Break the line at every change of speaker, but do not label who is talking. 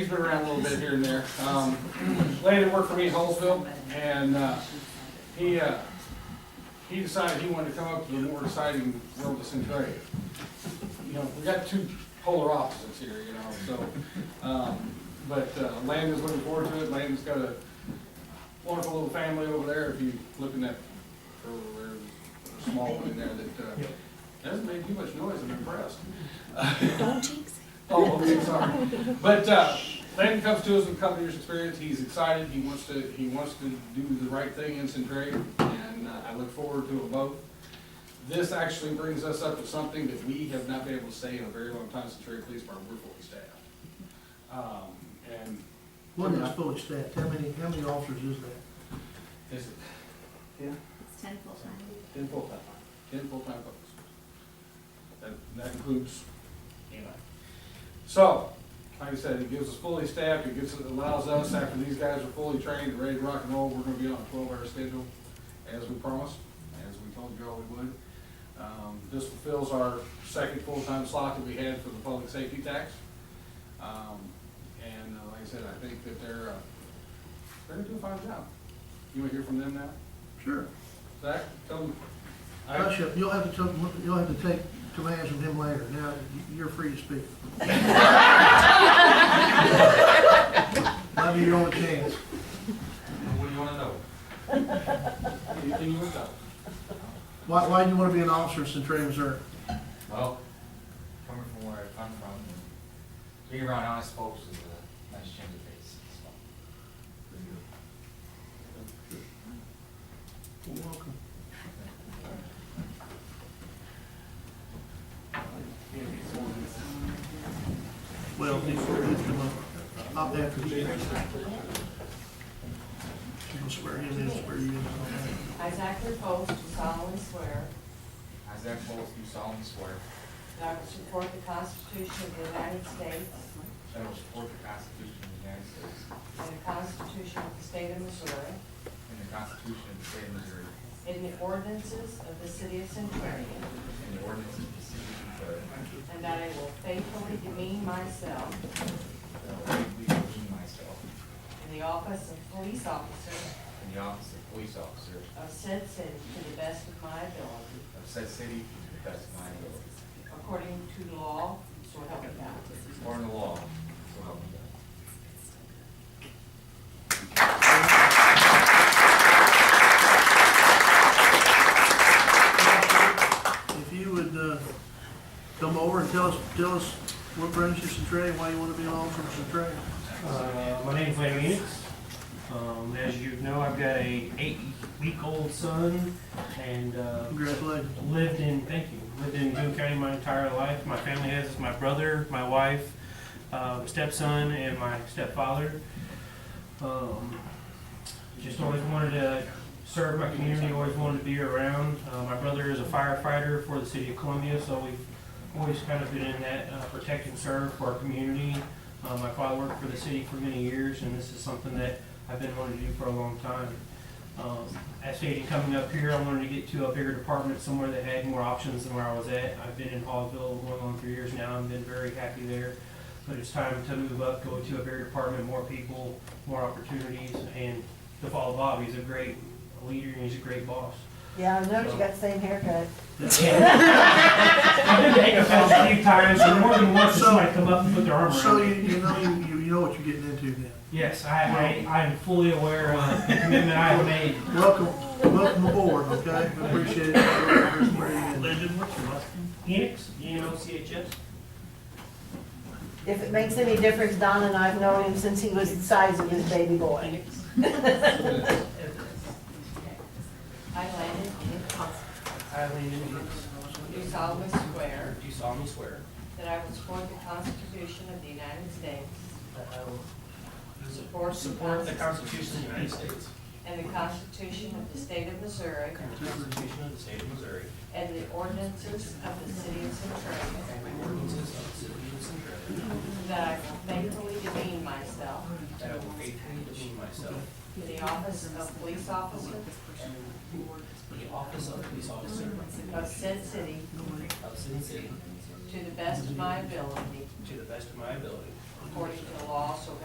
He's been around a little bit here and there. Um, Lady worked for me in Holesville, and uh, he, uh, he decided he wanted to come up to the more exciting world of Centralia. You know, we got two polar opposites here, you know, so, um, but uh, Landon's looking forward to it. Landon's got a wonderful little family over there, if you look in that, or, or small one in there that uh, doesn't make too much noise, I'm impressed.
Don't jinx
Oh, okay, sorry. But uh, Landon comes to us with a couple years' experience. He's excited. He wants to. He wants to do the right thing in Centralia, and uh, I look forward to a vote. This actually brings us up to something that we have not been able to say in a very long time. Centralia Police Department, we're fully staffed. Um, and
One that's fully staffed, how many, how many officers is that?
is it
It's ten full time.
ten full time? Ten full time folks. That, that includes, you know. So, like I said, it gives us fully staffed, it gives, it allows us, after these guys are fully trained, and ready to rock and roll, we're gonna be on a twelve-hour schedule, as we promised, as we told you all we would. Um, this fulfills our second full-time slot that we had for the public safety tax. Um, and uh, like I said, I think that they're, uh, they're gonna do a fine job. You wanna hear from them now?
Sure.
Zach, tell them. I-
Hush up, you'll have to, tell- you'll have to take commands from him later, now, y- you're free to speak. Might be your only chance.
What do you wanna know? Anything you want to know?
Why, why do you wanna be an officer in Centralia, Missouri?
Well, coming from where I come from, being around honest folks is a nice change of pace. so.
You're welcome. Well, it's, it's the, up after the. She'll swear you in, swear you in.
I, Zach Repost, do solemnly swear
I, Zach Bowles, do solemnly swear
that I will support the Constitution of the United States
that I will support the Constitution of the United States
and the Constitution of the State of Missouri
and the Constitution of the State of Missouri
and the ordinances of the City of Centralia,
and the ordinances of the City of Missouri,
and that I will faithfully demean myself
that I will faithfully demean myself
in the office of police officer
in the office of police officer
of said city to the best of my ability,
of said city to the best of my ability,
according to law, so help me God.
according to law, so help me God.
If you would, uh, come over and tell us, tell us what brings you to Centralia, why you wanna be an officer in Centralia.
Uh, my name's Larry Enix. Um, as you know, I've got a eight-week-old son and, uh,
Congratulations.
lived in, thank you, lived in Boone County my entire life. My family has, is my brother, my wife, uh, stepson, and my stepfather. Um, just always wanted to serve my community, always wanted to be around. Uh, my brother is a firefighter for the city of Columbia, so we've always kind of been in that, uh, protect and serve for our community. Uh, my father worked for the city for many years, and this is something that I've been wanting to do for a long time. Um, as stated, coming up here, I wanted to get to a bigger department, somewhere that had more options than where I was at. I've been in Hallville going on three years now, and been very happy there. But it's time to move up, go to a bigger department, more people, more opportunities, and to follow Bob, he's a great leader, and he's a great boss.
Yeah, I noticed you got the same haircut.
I've been to Hallville a few times, and more than once, somebody come up and put their arm around
So
me.
you, you know, you, you know what you're getting into then.
Yes, I, I, I'm fully aware of the commitment I have made.
Welcome, welcome aboard, okay? We Appreciate it. Legend, what's your last
Enix, E N O C H S?
If it makes any difference, Don and I've known him since he was the size of his baby boy.
I, Landon Ennis,
I, Landon Enix,
do solemnly swear
do solemnly swear
that I will support the Constitution of the United States
that I will
Support.
Support the Constitution of the United States.
And the Constitution of the State of Missouri.
And the Constitution of the State of Missouri.
And the ordinances of the City of Centralia.
And the ordinances of the City of Centralia.
That I will faithfully demean myself
That I will faithfully demean myself
in the office of police officer
in the office of police officer
of said city
of Sin City
to the best of my ability,
to the best of my ability.
according to the law, so